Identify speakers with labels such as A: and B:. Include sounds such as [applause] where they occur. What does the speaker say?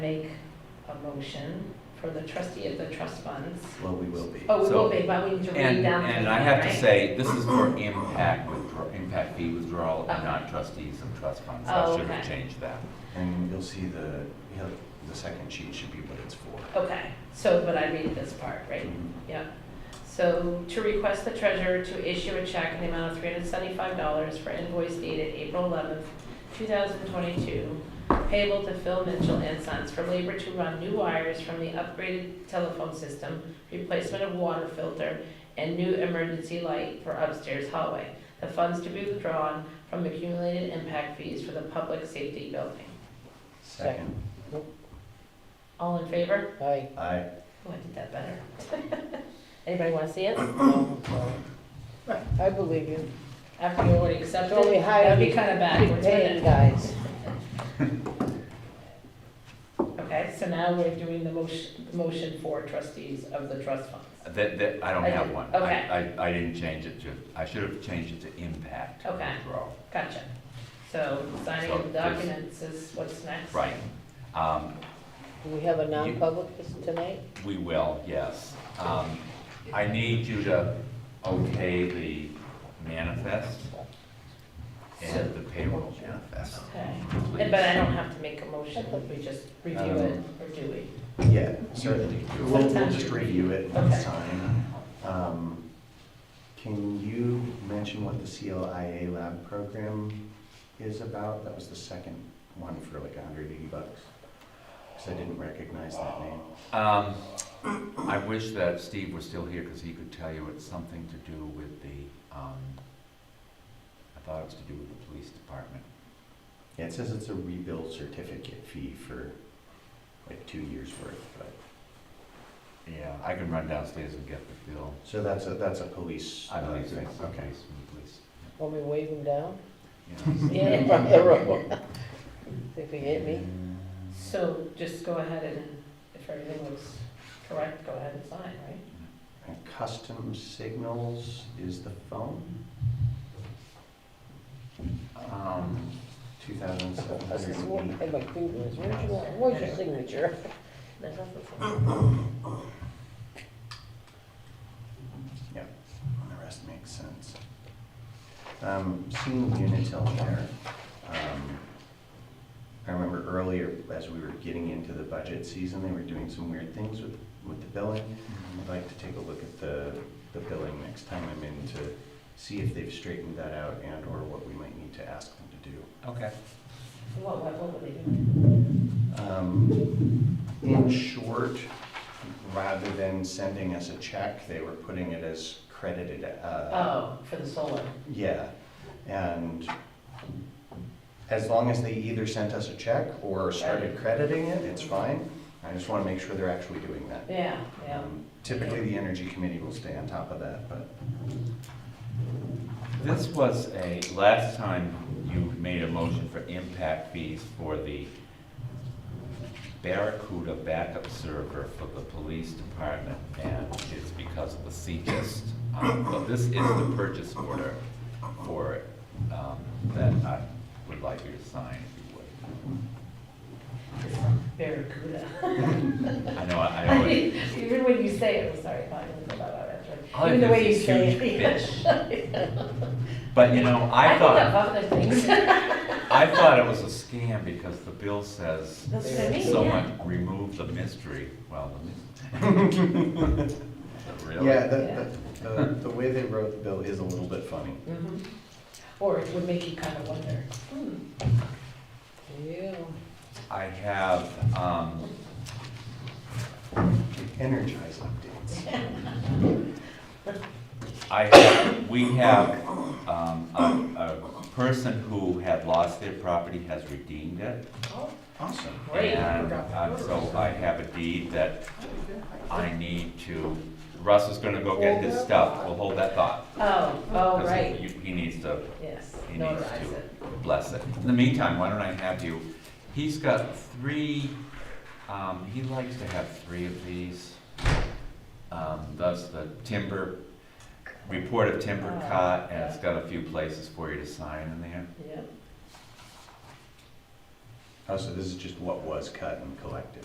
A: make a motion for the trustee of the trust funds.
B: Well, we will be.
A: Oh, we
C: So-
A: will be, but we need to read
C: And,
A: down. the
C: and I
A: thing,
C: have to
A: right?
C: say, this is for impact withdrawal, impact fee withdrawal of
A: Okay.
C: non-trustees and trust funds.
A: Oh,
C: I should have
A: okay.
C: changed that.
B: And you'll see the, he'll- the second sheet should be what it's for.
A: Okay, so, but I read this part, right? Yep. So to request the treasurer to issue a check in the amount of three hundred seventy-five dollars for invoice dated April eleventh, two thousand twenty-two, payable to Phil Mitchell and Sons for labor to run new wires from the upgraded telephone system, replacement of water filter, and new emergency light for upstairs hallway. The funds to be withdrawn from accumulated impact fees for the public safety building.
B: Second,
A: All in favor?
D: Aye.
B: I,
A: Oh, I did that better. [laughs] Anybody wanna see it?
D: I believe you.
A: After you already accepted?
D: Don't we hire
A: That'd be
D: these
A: kinda
D: Keep
A: backwards, wouldn't
D: paying
A: it?
D: guys.
A: Okay, so now we're doing the motion, motion for trustees of the trust funds.
C: That, that, I don't
A: I
C: have
A: did-
C: one.
A: okay.
C: I, I, I didn't change it to, I should have changed it to impact
A: Okay.
C: withdrawal.
A: Gotcha. So signing
C: So
A: of
C: this-
A: documents is what's next?
C: Right. Um,
D: Do we have a non-public this tonight?
C: we will, yes. Um, I need you to okay the manifest and the payroll manifest.
A: Okay.
C: please.
A: And- But I don't have to make a motion, we just review it, or do we?
B: yeah, certainly. We'll, we'll just review it
A: Okay.
B: next time. Um, Can you mention what the CLIA lab program is about? That was the second one for like a hundred eighty bucks. Because I didn't recognize that name.
C: Um, I wish that Steve was still here, because he could tell you it's something to do with the, um, I thought it was to do with the police department.
B: Yeah, it says it's a rebuild certificate fee for like two years worth, but,
C: Yeah, I can run downstairs and get the bill.
B: so that's a, that's a police.
C: I believe
B: uh,
C: it's,
B: Okay.
C: okay, from
D: Want me to wave them down?
C: the police.
D: [laughs] Yeah, from the road. If you hit me.
A: So just go ahead and, if everything looks correct, go ahead and sign, right?
B: And custom signals is the phone,
C: Um,
B: two thousand seven
D: I was
B: hundred
D: just
B: and
D: walking
B: eighty.
D: by my fingers. Where's your, where's your signature?
A: That's what it says.
B: Yep, and the rest makes sense. Um, seeing Unitil there, um, I remember earlier, as we were getting into the budget season, they were doing some weird things with, with the billing. I'd like to take a look at the, the billing next time I'm in to see if they've straightened that out and or what we might need to ask them to do.
C: okay.
A: What, what, what would they do?
B: Um, In short, rather than sending us a check, they were putting it as credited. uh,
A: Oh, for the solar.
B: Yeah, and as long as they either sent us a check or started crediting it, it's fine. I just want to make sure they're actually doing that.
A: Yeah, yeah.
B: Um, Typically, the Energy Committee will stay on top of that, but
C: This was a, last time you made a motion for impact fees for the Barracuda backup server for the police department, and it's because of the CGIST. Um, But this is the purchase order for it um, that I would like you to sign if
A: Barracuda. [laughs]
C: you would. I know, I I know. it-
A: Even when you say it, I'm sorry, I'm not gonna go about that,
C: all I
A: right? Even the
C: do
A: way you
C: Oh, is
A: say
C: huge
A: it. [laughs]
C: bitch. But, you know, I
A: think
C: thought,
A: of other things. [laughs]
C: I thought it was a scam because the bill says
A: That's what I mean, yeah.
C: Someone remove the mystery, well, the mystery. [laughs]
B: yeah,
C: Really?
B: the, the- the, the way they wrote the bill is a little bit funny.
A: Mhm. Or it would make you kind of wonder, hmm,
D: Yeah.
C: I have, um,
B: Energize updates.
C: I have, we have, um, a, a person who had lost their property has redeemed it.
A: oh,
B: Awesome.
A: great.
C: And um, so I have a deed that I need to, Russ is gonna go get his stuff, we'll hold that thought.
A: Oh, oh,
C: 'cause
A: right,
C: you- He needs to
A: yes,
C: He needs
A: notarize
C: to.
A: it.
C: bless it. In the meantime, why don't I have you, he's got three, um, he likes to have three of these. Um, that's the timber, report of timber
A: Oh,
C: cut, and it's got a few places for you to sign in there.
A: Yep.
B: Oh, so this is just what was cut and collected?